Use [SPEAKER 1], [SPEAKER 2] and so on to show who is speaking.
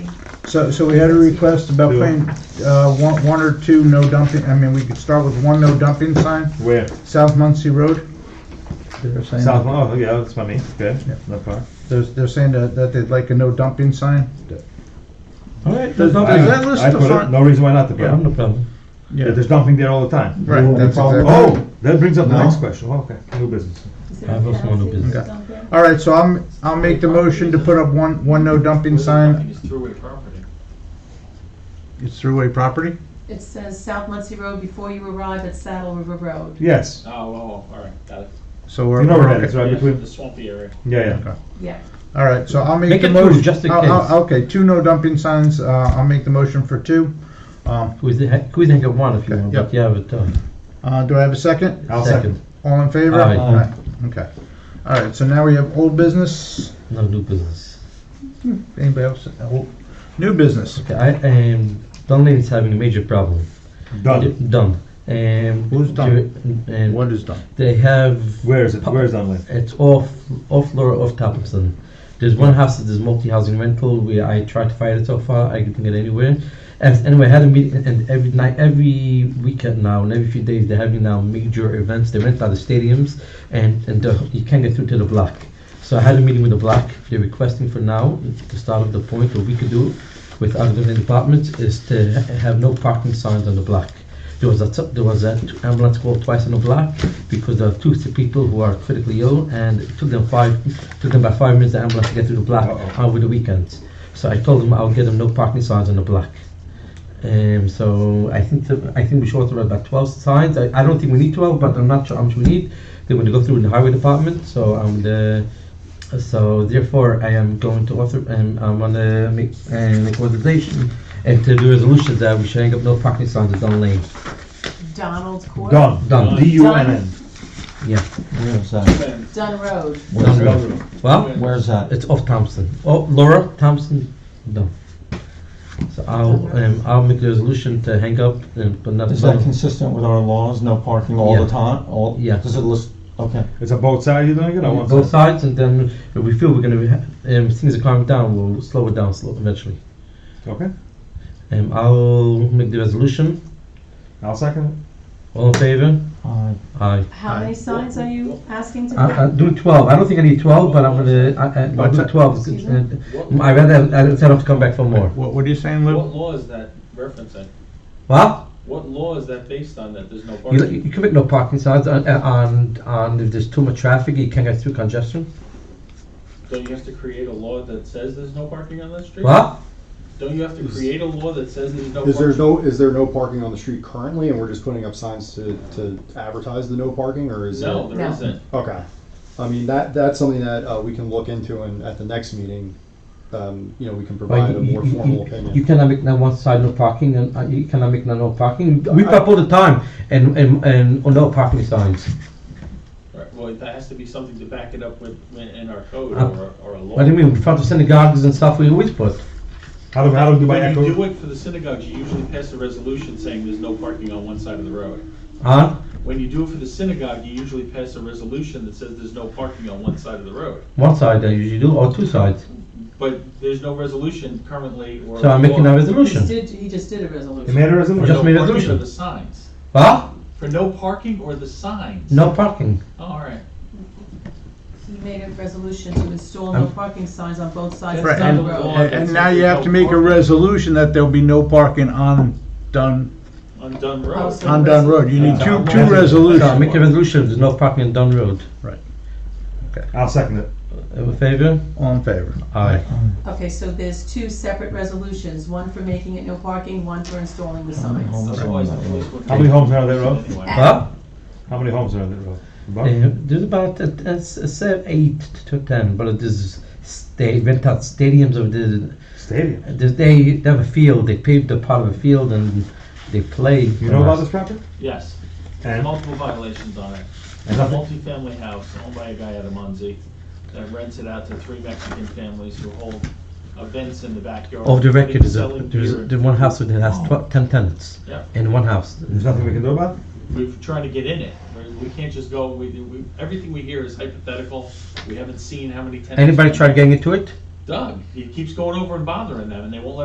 [SPEAKER 1] So, so we had a request about putting, uh, one, one or two no dumping, I mean, we could start with one no dumping sign,
[SPEAKER 2] Where?
[SPEAKER 1] South Muncie Road. They're saying,
[SPEAKER 2] South, oh, yeah, that's by me, good, no problem.
[SPEAKER 1] they're, they're saying that, that they'd like a no dumping sign.
[SPEAKER 2] All right.
[SPEAKER 1] There's no-
[SPEAKER 2] I-
[SPEAKER 1] is that listed
[SPEAKER 2] I put it-
[SPEAKER 1] front?
[SPEAKER 2] No reason why not to put
[SPEAKER 3] Yeah, no
[SPEAKER 2] it.
[SPEAKER 3] problem.
[SPEAKER 1] Yeah.
[SPEAKER 2] There's dumping there all the time.
[SPEAKER 1] Right, that's exactly.
[SPEAKER 2] Oh, that brings up the
[SPEAKER 1] No.
[SPEAKER 2] next question, Oh, okay, new business.
[SPEAKER 3] I have also no business.
[SPEAKER 1] All right, so I'm, I'll make the motion to put up one, one no dumping sign.
[SPEAKER 4] It's throughway property.
[SPEAKER 1] It's throughway property?
[SPEAKER 5] It says South Muncie Road before you arrive at Saddle River Road.
[SPEAKER 2] Yes,
[SPEAKER 4] Oh, oh, all right, got it.
[SPEAKER 1] So we're.
[SPEAKER 2] you know
[SPEAKER 1] we're
[SPEAKER 2] where that
[SPEAKER 1] okay.
[SPEAKER 2] is, right
[SPEAKER 4] Yeah,
[SPEAKER 2] between,
[SPEAKER 4] The swampy area.
[SPEAKER 2] yeah, yeah.
[SPEAKER 5] Yeah.
[SPEAKER 1] All right, so I'll make
[SPEAKER 3] Make
[SPEAKER 1] the
[SPEAKER 3] it two,
[SPEAKER 1] motion.
[SPEAKER 3] just in case.
[SPEAKER 1] Okay, two no dumping signs, uh, I'll make the motion for two. Um,
[SPEAKER 3] We think, we think of one if you want,
[SPEAKER 1] Yeah.
[SPEAKER 3] but yeah, but, uh,
[SPEAKER 1] uh, do I have a second?
[SPEAKER 2] I'll
[SPEAKER 3] second,
[SPEAKER 2] second.
[SPEAKER 1] All in favor?
[SPEAKER 3] Aye.
[SPEAKER 1] Aye. Okay. All right, so now we have old business.
[SPEAKER 3] no new business.
[SPEAKER 1] Anybody else? Uh, old- New business.
[SPEAKER 3] Okay, I, um, Dunlane is having a major problem.
[SPEAKER 2] Done,
[SPEAKER 3] Done. Um.
[SPEAKER 1] Who's done?
[SPEAKER 3] And
[SPEAKER 1] What is done?
[SPEAKER 3] they have,
[SPEAKER 2] where is it, where is Dunlane?
[SPEAKER 3] it's off, off Laura, off Tapperson. There's one house that is multi-housing rental, where I tried to find it so far, I couldn't get anywhere. And anyway, I had a meeting, and every night, every weekend now, and every few days, they're having now major events, they rent out the stadiums, and, and the- you can't get through to the block. So I had a meeting with the block, they're requesting for now, the start of the point, what we could do with other than departments, is to ha- have no parking signs on the block. There was a, t- there was an ambulance call twice on the block because there are two sick people who are critically ill, and it took them five, took them about five minutes the ambulance to get to the block
[SPEAKER 2] Uh-oh.
[SPEAKER 3] over the weekends. So I told them I'll get them no parking signs on the block. Um, so I think the, I think we should order about twelve signs. I, I don't think we need twelve, but I'm not sure how much we need. They're going to go through in the highway department, so I'm the so therefore, I am going to author, um, I'm gonna make, uh, make authorization and to the resolution that we should hang up no parking signs at Dunn Lane.
[SPEAKER 5] Donald Court.
[SPEAKER 2] Done,
[SPEAKER 3] Done.
[SPEAKER 2] D U N N.
[SPEAKER 3] Yeah.
[SPEAKER 6] Where's that?
[SPEAKER 4] Then,
[SPEAKER 5] Dunn Road.
[SPEAKER 6] Where's that?
[SPEAKER 2] Done.
[SPEAKER 3] Well,
[SPEAKER 6] Where's that?
[SPEAKER 3] it's off Thompson. Oh, Laura Thompson, no. So I'll, um, I'll make the resolution to hang up and put another.
[SPEAKER 6] Is that
[SPEAKER 3] sign.
[SPEAKER 6] consistent with our laws, no parking all
[SPEAKER 3] Yeah.
[SPEAKER 6] the time? All,
[SPEAKER 3] Yeah.
[SPEAKER 6] does it list, okay.
[SPEAKER 2] It's on both sides you're doing it, or one
[SPEAKER 3] Both
[SPEAKER 2] side?
[SPEAKER 3] sides, and then if we feel we're gonna, ha- um, things are calming down, we'll slow it down slow eventually.
[SPEAKER 2] Okay,
[SPEAKER 3] Um, I'll make the resolution.
[SPEAKER 2] I'll second
[SPEAKER 3] All in favor?
[SPEAKER 6] Uh,
[SPEAKER 3] Aye.
[SPEAKER 5] How many signs are you asking to?
[SPEAKER 3] I, I do twelve. I don't think I need twelve, but I'm gonna. I, I, I'll do twelve.
[SPEAKER 5] Excuse
[SPEAKER 3] Uh,
[SPEAKER 5] me?
[SPEAKER 4] What,
[SPEAKER 3] I rather I instead of come back for more.
[SPEAKER 1] What, what are you saying,
[SPEAKER 4] what
[SPEAKER 1] Lou?
[SPEAKER 4] law is that referencing?
[SPEAKER 3] What?
[SPEAKER 4] What law is that based on that there's no
[SPEAKER 3] You,
[SPEAKER 4] parking?
[SPEAKER 3] you can make no parking signs on, on on if there's too much traffic, you can't get through congestion.
[SPEAKER 4] Don't you have to create a law that says there's no parking on that street?
[SPEAKER 3] What?
[SPEAKER 4] Don't you have to create a law that says there's no
[SPEAKER 7] Is there
[SPEAKER 4] parking?
[SPEAKER 7] no, is there no parking on the street currently, and we're just putting up signs to, to advertise the no parking, or is it?
[SPEAKER 4] No, there
[SPEAKER 5] No.
[SPEAKER 4] isn't.
[SPEAKER 7] Okay, I mean, that, that's something that, uh, we can look into, and at the next meeting, um, you know, we can provide a
[SPEAKER 3] you,
[SPEAKER 7] more
[SPEAKER 3] you-
[SPEAKER 7] formal
[SPEAKER 3] you-
[SPEAKER 7] opinion.
[SPEAKER 3] you cannot make no one side no parking, and uh, you cannot make no no parking. We pop all the time, and and and on no parking signs.
[SPEAKER 4] Right, Well, that has to be something to back it up with, in our code
[SPEAKER 3] Uh,
[SPEAKER 4] or, or a law.
[SPEAKER 3] What do you mean? In front of synagogues and stuff, we always put.
[SPEAKER 2] it. How do, how do we do by
[SPEAKER 4] When you do
[SPEAKER 2] echo?
[SPEAKER 4] it for the synagogues, you usually pass a resolution saying there's no parking on one side of the road.
[SPEAKER 3] Huh?
[SPEAKER 4] When you do it for the synagogue, you usually pass a resolution that says there's no parking on one side of the road.
[SPEAKER 3] One side I usually do, or two sides.
[SPEAKER 4] But there's no resolution currently or.
[SPEAKER 3] So I'm making a
[SPEAKER 4] law
[SPEAKER 5] He just
[SPEAKER 3] resolution.
[SPEAKER 5] did, he just did a
[SPEAKER 2] You
[SPEAKER 5] resolution.
[SPEAKER 2] made a
[SPEAKER 4] For
[SPEAKER 2] resolution?
[SPEAKER 3] Just
[SPEAKER 4] no
[SPEAKER 3] made a
[SPEAKER 4] parking
[SPEAKER 3] resolution.
[SPEAKER 4] or the signs.
[SPEAKER 3] What?
[SPEAKER 4] For no parking or the signs.
[SPEAKER 3] No parking.
[SPEAKER 4] Oh, All right.
[SPEAKER 5] He made a resolution to install no parking signs on both sides of
[SPEAKER 1] Right,
[SPEAKER 4] That's
[SPEAKER 5] Saddle
[SPEAKER 4] not the
[SPEAKER 5] Road.
[SPEAKER 4] law
[SPEAKER 1] And
[SPEAKER 4] that
[SPEAKER 1] and
[SPEAKER 4] says
[SPEAKER 1] now you
[SPEAKER 4] there's
[SPEAKER 1] have
[SPEAKER 4] no
[SPEAKER 1] to make a
[SPEAKER 4] parking
[SPEAKER 1] resolution that there'll be no parking on Dunn,
[SPEAKER 4] On Dunn Road.
[SPEAKER 5] Also-
[SPEAKER 1] on Dunn Road. You need two, two
[SPEAKER 3] So I
[SPEAKER 1] resolutions.
[SPEAKER 3] make a resolution, there's no parking on Dunn Road.
[SPEAKER 2] I'll second it.
[SPEAKER 3] In favor?
[SPEAKER 1] All in favor?
[SPEAKER 3] Aye.
[SPEAKER 5] Okay, so there's two separate resolutions, one for making it no parking, one for installing the
[SPEAKER 6] Hold
[SPEAKER 5] signs.
[SPEAKER 6] on.
[SPEAKER 4] Otherwise, the police would.
[SPEAKER 2] How many homes are on that road?
[SPEAKER 4] Anyway.
[SPEAKER 3] Huh?
[SPEAKER 2] How many homes are on that road? About?
[SPEAKER 3] Uh, There's about uh, uh, s- uh, eight to ten, but there's, they rent out stadiums of the,
[SPEAKER 2] Stadium.
[SPEAKER 3] there's- they they have a field, they paved a part of a field and they play.
[SPEAKER 2] You know about this property?
[SPEAKER 4] Yes,
[SPEAKER 2] And,
[SPEAKER 4] multiple violations on it. It's
[SPEAKER 2] and
[SPEAKER 4] a
[SPEAKER 2] nothing?
[SPEAKER 4] multifamily house owned by a guy out of Muncie that rents it out to three Mexican families who hold events in the backyard.
[SPEAKER 3] Of Oh, the record,
[SPEAKER 4] including
[SPEAKER 3] there's, a-
[SPEAKER 4] selling
[SPEAKER 3] there's,
[SPEAKER 4] beer. Oh.
[SPEAKER 3] there's one house that has tw- ten tenants
[SPEAKER 4] Yeah.
[SPEAKER 3] in one house.
[SPEAKER 2] There's nothing we can do about it?
[SPEAKER 4] We've tried to get in it. We- We can't just go, we, we, everything we hear is hypothetical. We haven't seen how many tenants.
[SPEAKER 3] Anybody tried getting into it?
[SPEAKER 4] Doug, he keeps going over and bothering them and they won't let